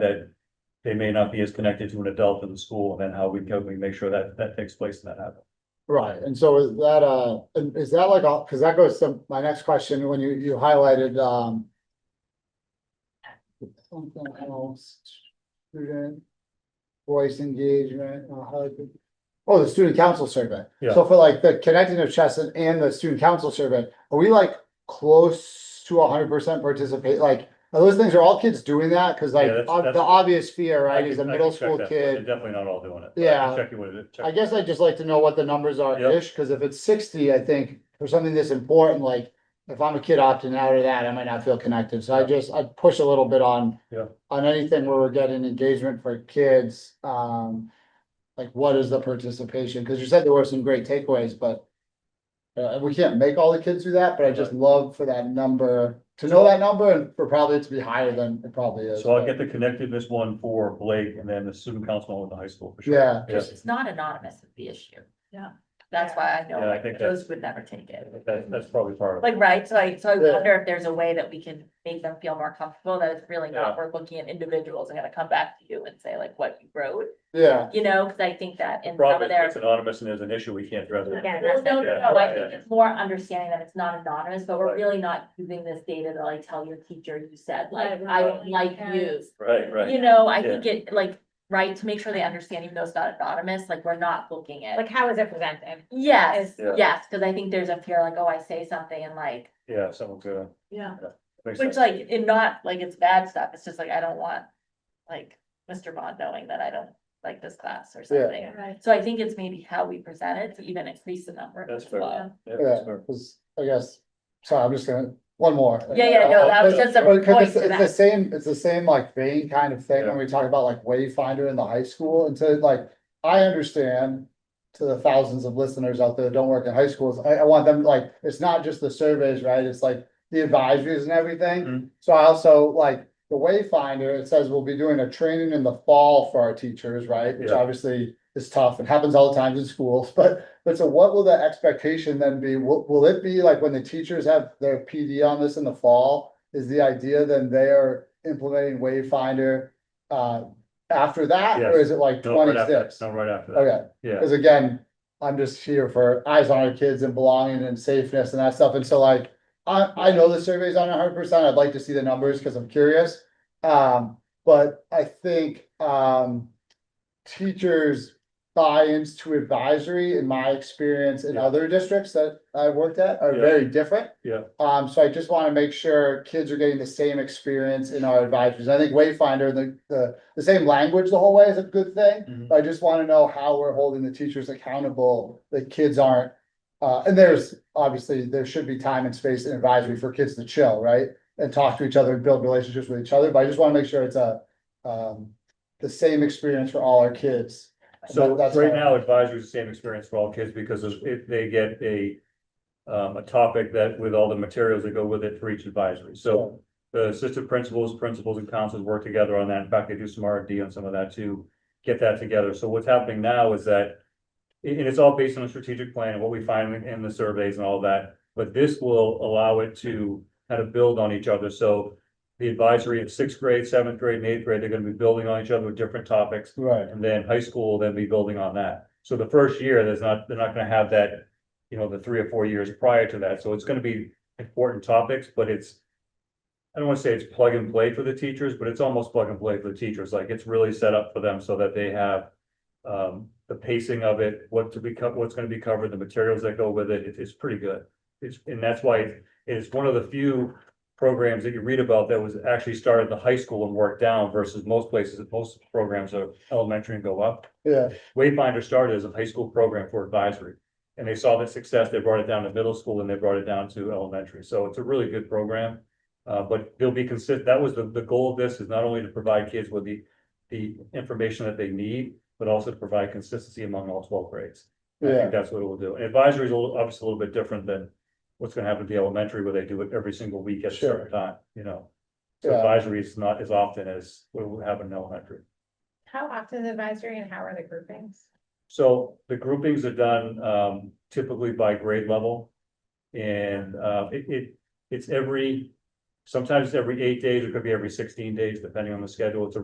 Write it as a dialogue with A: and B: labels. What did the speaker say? A: that they may not be as connected to an adult in the school, and then how we can, we make sure that that takes place and that happens.
B: Right, and so is that, uh, and is that like, all? cause that goes to my next question, when you, you highlighted, um. Something else, student voice engagement, uh, how it- oh, the student council survey.
A: Yeah.
B: So for like the connecting of Chestnut and the student council survey, are we like close to hundred percent participate, like, are those things, are all kids doing that? Cause like,
A: Yeah, that's-
B: ob- the
A: that's-
B: obvious fear,
A: I
B: right,
A: can-
B: is a
A: I can
B: middle
A: check
B: school
A: that, but
B: kid.
A: they're Definitely not all doing it. I
B: Yeah.
A: can Check you with it. check-
B: I guess I'd just like to know what the numbers are
A: Yep.
B: ish, because if it's sixty, I think for something this important, like. If I'm a kid opting out of that, I might not feel connected, so I just, I'd push a little bit on.
A: Yeah.
B: On anything where we're getting engagement for kids, um, like what is the participation, because you said there were some great takeaways, but. Uh, we can't make all the kids do that, but I just love for that number, to know that number and for probably it to be higher than it probably is.
A: So I'll get the connectedness one for Blake and then the student council with the high school for sure.
B: Yeah.
A: Yeah,
C: It's not anonymous is the issue.
D: Yeah.
C: That's why I know
A: Yeah, I
C: like,
A: think
C: those would never take it.
A: that, that's probably part of it.
C: Like, right, so I, so I
B: Yeah.
C: wonder if there's a way that we can make them feel more comfortable, that it's really
A: Yeah.
C: not, we're looking at individuals and gonna come back to you and say like what you wrote.
B: Yeah,
C: You know, cause I think that in some
A: Problem
C: of
A: is,
C: their.
A: it's anonymous and there's an issue, we can't address it.
C: Again, that's- No, no,
A: Yeah,
C: no, I
A: yeah.
C: think it's more understanding that it's not anonymous, but we're
A: Right.
C: really not using this data to like tell your teacher you said, like,
D: Right,
C: I don't
D: right.
C: like you.
A: Right, right.
C: You know, I think it like, right, to make sure they understand even though it's not anonymous, like, we're not looking at.
D: Like, how is it presented?
C: Yes,
A: Yeah.
C: yes, because I think there's a fear like, oh, I say something and like,
A: Yeah, someone's gonna.
D: Yeah.
A: Makes
C: which
A: sense.
C: like, and not like it's bad stuff, it's just like, I don't want. Like, Mr. Bond knowing that I don't like this class or something,
D: Right.
C: so I think it's maybe how we present it to even increase the number.
A: That's
C: as
A: fair.
C: well.
A: Yeah,
B: yeah,
A: that's fair.
B: 'cause I guess, sorry, I'm just gonna, one more.
C: Yeah, yeah, no, that was just a
B: Well, 'cause
C: point
B: it's,
C: to
B: it's the
C: that,
B: same, it's the same like vein kind of thing when we talk about like wayfinder in the high school, and so like, I understand. To the thousands of listeners out there that don't work in high schools, I, I want them like, it's not just the surveys, right, it's like the advisories and
A: Mhm.
B: everything. So I also like, the wayfinder, it says we'll be doing a training in the fall for our teachers, right, which
A: Yeah.
B: obviously is tough, it happens all the time in schools, but. But so what will the expectation then be, will, will it be like when the teachers have their PD on this in the fall? is the idea then they are implementing Wayfinder uh after that, or
A: Yes.
B: is it like
A: No, right after-
B: twenty-six?
A: No, right after that.
B: Okay,
A: Yeah,
B: because again, I'm just here for eyes on our kids and belonging and safeness and that stuff, and so like, I I know the survey's on hundred percent, I'd like to see the numbers because I'm curious. Um, but I think um teachers buy-ins to advisory, in my experience in
A: Yeah.
B: other districts that I worked at, are
A: Yeah.
B: very different.
A: yeah,
B: Um, so I just want to make sure kids are getting the same experience in our advisories. I think Wayfinder, the, the, the same language the whole way is a good thing.
A: Mhm.
B: But I just want to know how we're holding the teachers accountable, that kids aren't. Uh, and there's, obviously, there should be time and space in advisory for kids to chill, right? And talk to each other and build relationships with each other, but I just want to make sure it's a, um, the same experience for all our kids.
A: so
B: That- that's
A: right
B: all.
A: now advisory is the same experience for all kids because there's- if they get a. Um, a topic that with all the materials that go with it for each advisory, so the assistant principals, principals and counselors work together on that. In fact, they do some R and D on some of that to get that together. So what's happening now is that. And and it's all based on a strategic plan and what we find in- in the surveys and all that, but this will allow it to kind of build on each other. So. The advisory of sixth grade, seventh grade, and eighth grade, they're gonna be building on each other with different topics.
B: Right,
A: And then high school, will then be building on that. So the first year, there's not, they're not gonna have that, you know, the three or four years prior to that. So it's gonna be important topics, but it's. I don't wanna say it's plug and play for the teachers, but it's almost plug and play for the teachers. Like it's really set up for them so that they have. Um, the pacing of it, what to be co- what's gonna be covered, the materials that go with it, it- it's pretty good. It's, and that's why it's one of the few programs that you read about that was actually started at the high school and worked down versus most places, most programs are elementary and go up.
B: yeah.
A: Wayfinder started as a high school program for advisory. And they saw the success, they brought it down to middle school and they brought it down to elementary. So it's a really good program. Uh, but they'll be consistent, that was the, the goal of this is not only to provide kids with the, the information that they need, but also to provide consistency among all twelve grades. I
B: Yeah.
A: think that's what it will do. And advisory is a little- obviously a little bit different than what's gonna happen at the elementary where they do it every single week at a
B: Sure.
A: certain time, you know? So
B: Yeah.
A: advisory is not as often as what would happen in elementary.
D: How often is advisory and how are the groupings?
A: So the groupings are done um typically by grade level. And uh it it it's every, sometimes it's every eight days, it could be every sixteen days, depending on the schedule. It's a